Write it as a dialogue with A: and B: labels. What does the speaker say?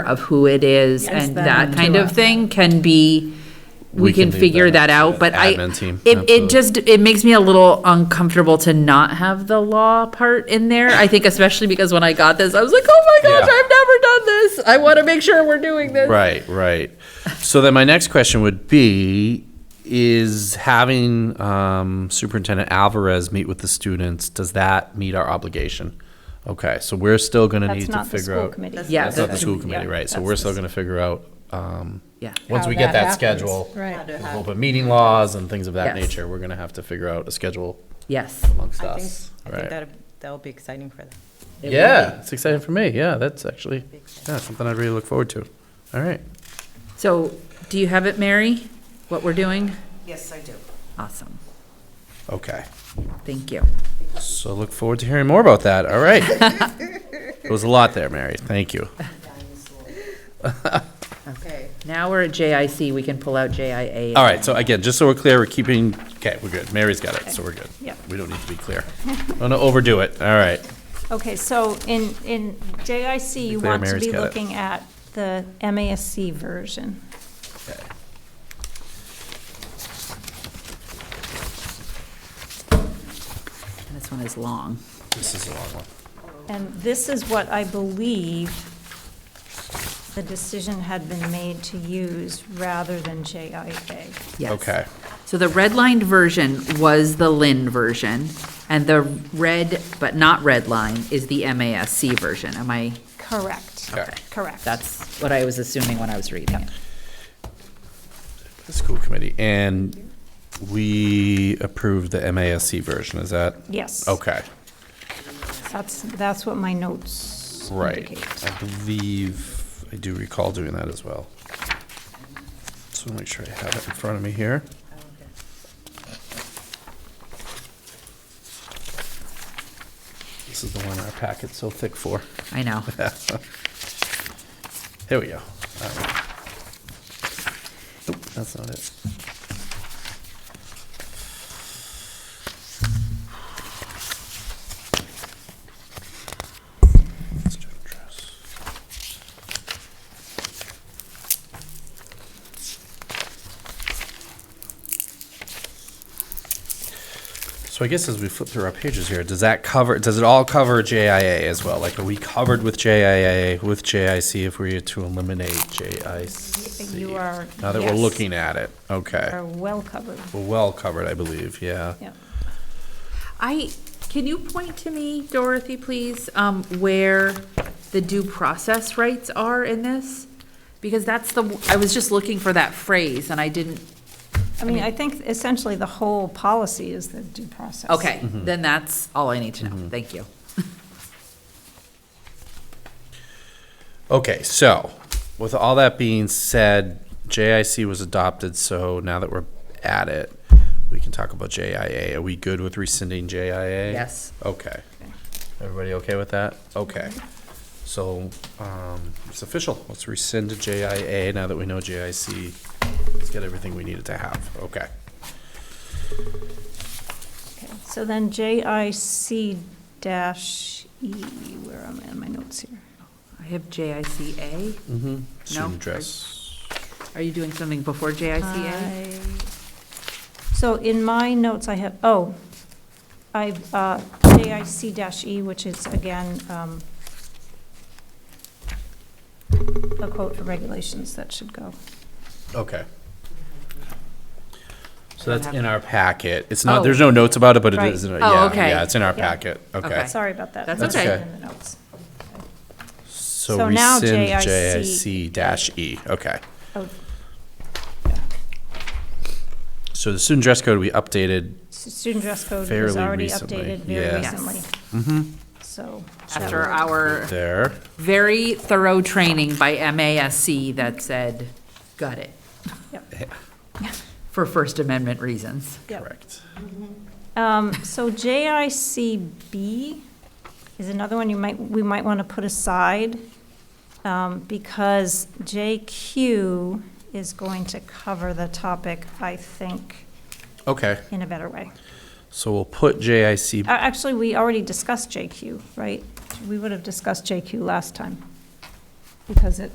A: of who it is
B: Yes,
A: and
B: that
A: that kind
B: to
A: of
B: us.
A: thing can be, we
C: We
A: can
C: can leave
A: figure
C: that
A: that
C: up
A: out,
C: to the
A: but I,
C: admin team,
A: it,
C: absolutely.
A: it just, it makes me a little uncomfortable to not have the law part in there. I think especially because when I got this, I was like, oh my gosh,
C: Yeah.
A: I've never done this. I want to make sure we're doing this.
C: Right, right. So then my next question would be, is having um, Superintendent Alvarez meet with the students, does that meet our obligation? Okay, so we're still gonna need
B: That's
C: to
B: not the
C: figure
B: school
C: out.
B: committee.
A: Yeah,
C: That's not the
A: that's-
C: school committee, right, so
B: that's
C: we're
B: the
C: still gonna figure out, um,
A: Yeah.
C: once
B: How
C: we get
B: that
C: that
B: happens,
C: schedule.
B: right.
C: there's Open meeting laws and things of that
A: Yes.
C: nature, we're gonna have to figure out a schedule
A: Yes.
C: amongst
D: I think,
C: us,
D: I think
C: right?
D: that, that'll be exciting for them.
A: It will
C: Yeah,
A: be.
C: it's exciting for me, yeah, that's actually, yeah, something I'd really look forward to, all right.
A: So do you have it, Mary? What we're doing?
D: Yes, I do.
A: Awesome.
C: Okay.
A: Thank you.
C: So look forward to hearing more about that. All right. it was a lot there, Mary. Thank you.
D: Okay.
A: Now we're at JIC. We can pull out JIA.
C: All right. So again, just so we're clear, we're keeping. Okay, we're good. Mary's got it, so we're good.
B: Yep.
C: We don't need to be clear. Don't overdo it. All right.
B: Okay, so in, in JIC, you
C: Declare
B: want to
C: Mary's
B: be
C: got it.
B: looking at the MASC version.
C: Okay.
A: This one is long.
C: This is a long one.
B: And this is what I believe the decision had been made to use rather than JIA.
A: Yes.
C: Okay.
A: So the redlined version was the Lynn version, and the red, but not red line, is the MASC version. Am I,
B: Correct,
C: Okay.
B: correct.
A: that's what I was assuming when I was reading it.
C: The school committee and we approved the MASC version. Is that
B: Yes.
C: okay?
B: That's, that's what my notes
C: Right.
B: indicate.
C: I believe I do recall doing that as well. So make sure I have it in front of me here. This is the one our packet's so thick for.
A: I know.
C: Here we go. All right. Nope, that's not it. Student dress. So I guess as we flip through our pages here, does that cover, does it all cover JIA as well? Like, are we covered with JIA, with JIC if we were to eliminate JIC?
B: You are-
C: Now that we're
B: yes.
C: looking at it, okay.
B: Are well covered,
C: We're well covered, I believe, yeah.
B: yeah.
A: I, can you point to me, Dorothy, please, um, where the due process rights are in this? Because that's the, I was just looking for that phrase, and I didn't,
B: I mean, I think essentially the whole policy is the due process.
A: okay, then that's all I need to know. Thank you.
C: Okay, so with all that being said, JIC was adopted, so now that we're at it, we can talk about JIA. Are we good with rescinding JIA?
A: Yes.
C: Okay. Everybody okay with that? Okay. So, um, it's official. Let's rescind JIA now that we know JIC. Let's get everything we needed to have. Okay.
B: Okay, So then JIC dash E, where am I on my notes here?
A: I have JICA.
C: Mm-hmm.
A: I-
C: Student dress.
A: Are you doing something before JICA?
B: I- So in my notes, I have, oh, I, uh, JIC dash E, which is again, um, a quote for regulations that should go.
C: Okay. So that's
A: have-
C: in our packet. It's not,
A: Oh.
C: there's no notes about it, but it
B: Right.
C: is, in-
A: Oh,
C: yeah,
A: okay.
C: yeah, it's in our
B: Yeah.
C: packet. Okay.
A: Okay.
B: Sorry about that.
A: That's
B: That's
C: okay.
B: In the notes.
C: So
B: So now
C: rescind JIC
B: JIC
C: dash E. Okay.
B: Oh,
C: So the student dress code we updated.
B: s- Student dress code was
C: Fairly
B: already
C: recently,
B: updated
C: yeah.
B: very
C: Yes. Mm-hmm.
B: recently, so.
A: After our
C: There.
A: very thorough training by MASC that said, got it,
B: Yep.
A: for First Amendment reasons.
B: Yep.
C: Correct.
B: Um, so JICB is another one you might, we might want to put aside, um, because JQ is going to cover the topic, I think,
C: Okay.
B: in a better way.
C: So we'll put JIC.
B: Uh, Actually, we already discussed JQ, right? We would have discussed JQ last time, because it